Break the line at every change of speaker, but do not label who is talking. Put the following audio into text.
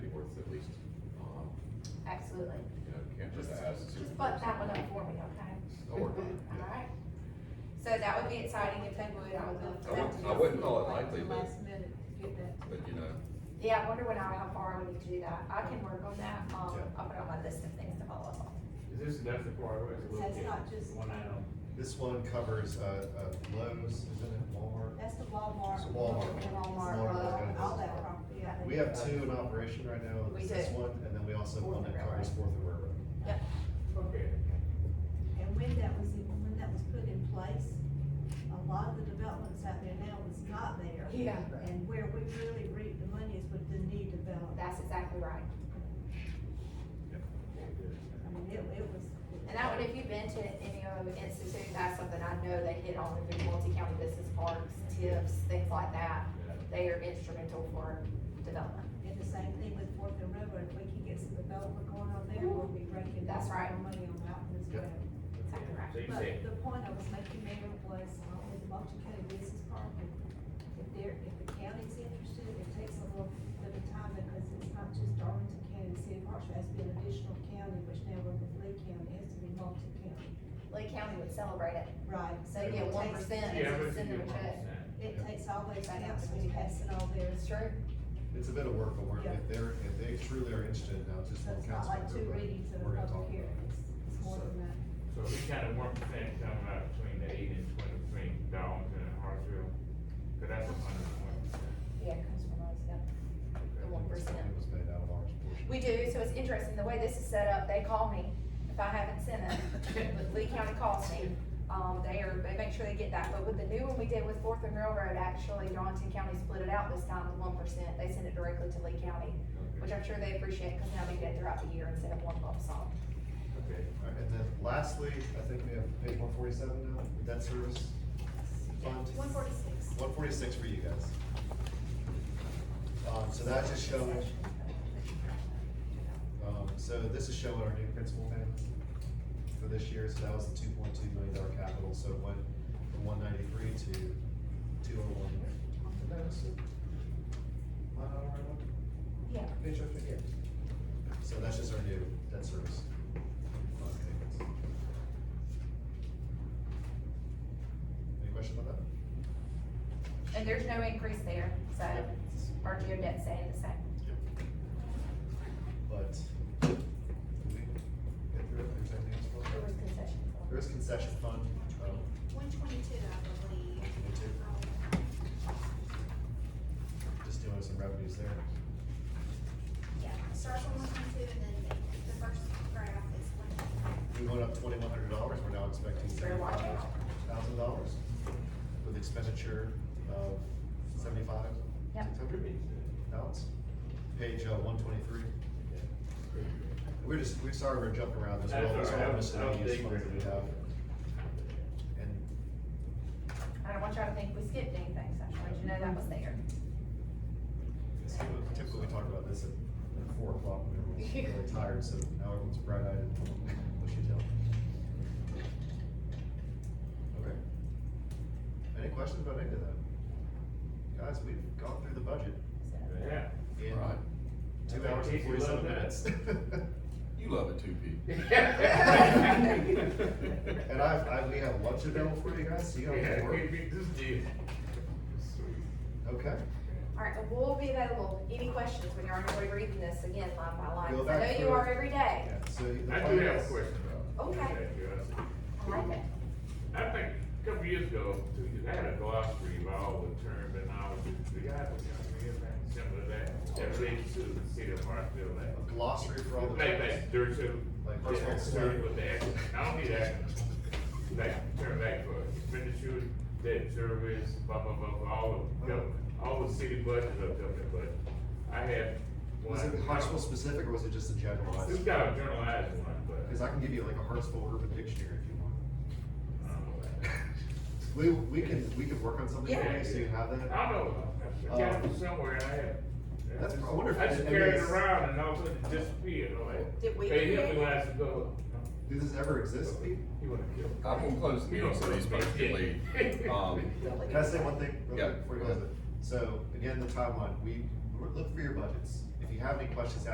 too late.
um, You know, can't just
Just-
ask.
Just butt that one up for me, okay?
Don't worry.
Alright. So that would be exciting if they would, I would love for
I
that
wouldn't,
to
I
be.
wouldn't call it
Wait
likely,
till
but,
last minute to get that.
but you know,
Yeah, I wonder when I, how far I would need to do that. I can work on that. Um,
Yeah.
I'll put it on my list of things to follow up on.
Is this enough for our, or is it a
So
little
it's
bit?
not just-
One item.
This one covers, uh, uh, Lowe's, is it at Walmart?
That's the Walmart.
It's Walmart.
Walmart,
Walmart.
uh, all that property. I think.
We have two in operation right now,
We
It's this
do.
one, and then we also have one
Fourth
that
and
covers Fourth and River Road.
Yep.
Okay.
And when that was, in- when that was put in place, a lot of the developments out there now was not there.
Yeah.
And where we really reap the money is with the new development.
That's exactly right.
I mean, it, it was.
And that would, if you've been to any of the institute, that's something I know they hit on, the big multi-county business parks, tips, things like that. They are instrumental for development.
And the same thing with Fourth and River, if we can get some development going on there, we'll be breaking.
That's right.
Money on that one as
Yep.
well.
Exactly right.
So you
But
say,
the point I was making, Mayor, was uh, with multi-county business park, if if they're, if the county's interested, it takes a little bit of time because it's not just Darlington County, City of Hartsville has to be an additional county, which now we're with Lee County, it has to be multi-county.
Lee County would celebrate it.
Right.
So you get one percent and you
yeah, but if you
send them
do
a
one
check.
percent,
It takes all those
Right.
counts when you pass it all there.
It's true.
It's a bit of work, but we're,
Yeah.
if they're, if they truly are interested, now just
So
one
it's not
council
like
member,
two
but
readings of a
we're gonna talk
public
about
hearing,
it.
it's, it's more
So-
than that.
So we kind of one percent coming out between the eight and twenty between Darlington and Hartsville, cause that's a hundred and one percent.
Yeah, it comes from us, yeah. The one percent.
It was made out of ours. portion.
We do, so it's interesting, the way this is set up, they call me if I haven't sent it. But Lee County calls me, um, they are, they make sure they get that, but with the new one we did with Fourth and Railroad, actually, Darlington County split it out this time, the one percent, they send it directly to Lee County, which I'm sure they appreciate, cause now they get it throughout the year instead of one lump sum.
Okay,
All right, And then lastly, I think we have page one forty-seven now, debt service fund.
One forty-six.
One forty-six for you guys. Um, so that just shows, um, so this is showing our new principal payments for this year, so that was the two point two million dollar capital, so it went from one ninety-three to two oh one.
Yeah.
So that's just our new debt service. fund payments. Any questions on that?
And there's no increase there, so
Yep.
our geo debt staying the same.
But, did we get through it, there's anything else for us?
There was concession.
There is concession fund, um,
One twenty-two, I believe.
we took just doing some revenues there.
Yeah, starts on one twenty-two and then the first graph is one twenty-two.
We went up twenty-one hundred dollars, we're now expecting
Better watch
seventy-five thousand dollars with expenditure of seventy-five,
Yep.
six hundred pounds. Page uh, one twenty-three. We're just, we're sorry we're jumping around as well,
That's
these
all
are
right.
all just
I was- I was
unused funds that we have. And
I don't want y'all to think we skipped anything, so I just wanted you to know that was there.
It's Typically, we talk about this at at four o'clock when everyone's really tired, so now everyone's bright eyed and bushy tailed. Okay. Any questions about any of that? Guys, we've gone through the budget
So-
yeah.
in
Right.
two hours and
Casey loved
forty-seven
that.
minutes.
you love it too, Pete.
And I've, I, we have lunch available for you guys, so you don't have to
Yeah, we,
worry.
we just did. Sweet.
Okay,
All right, but we'll be available, any questions when you're on your way reading this again, line by line,
Go
'cause I
back
know you
through.
are every day.
yeah, so. the
I do have a
finance-
question though.
Okay. I like it.
I think a couple years ago, two years, I had a glossary of all the terminology, do y'all have a glossary of that, similar to that, that relates to the city of Hartsville, like?
A glossary for all the.
Like, like, dirt too.
Like personal
Dirt with the, action. I don't need that, like, turn back for expenditure, debt service, blah, blah, blah, blah, all of, gov- all the city budgets of government, but I had one.
Was it Hartsville specific or was it just a generalized?
This got a generalized one, but.
Cause I can give you like a Hartsville urban dictionary if you want.
I don't know about that.
We, we can, we can work on something for you, so you have
I
that. Um,
don't know, I got it from somewhere, and I had.
That's- I wonder if
I just
it-
carried it
it's-
around and all of a sudden it disappeared, I'm like.
Did we
They hit
create
me when I said, go.
Did this ever exist?
He wanna kill. me.
I'm gonna close the
You
meeting so
don't-
these folks can leave. Um,
Can I say one thing? real
Yeah,
quick Before you
go
guys,
ahead.
so again, the timeline, we, look for your budgets. If you have any questions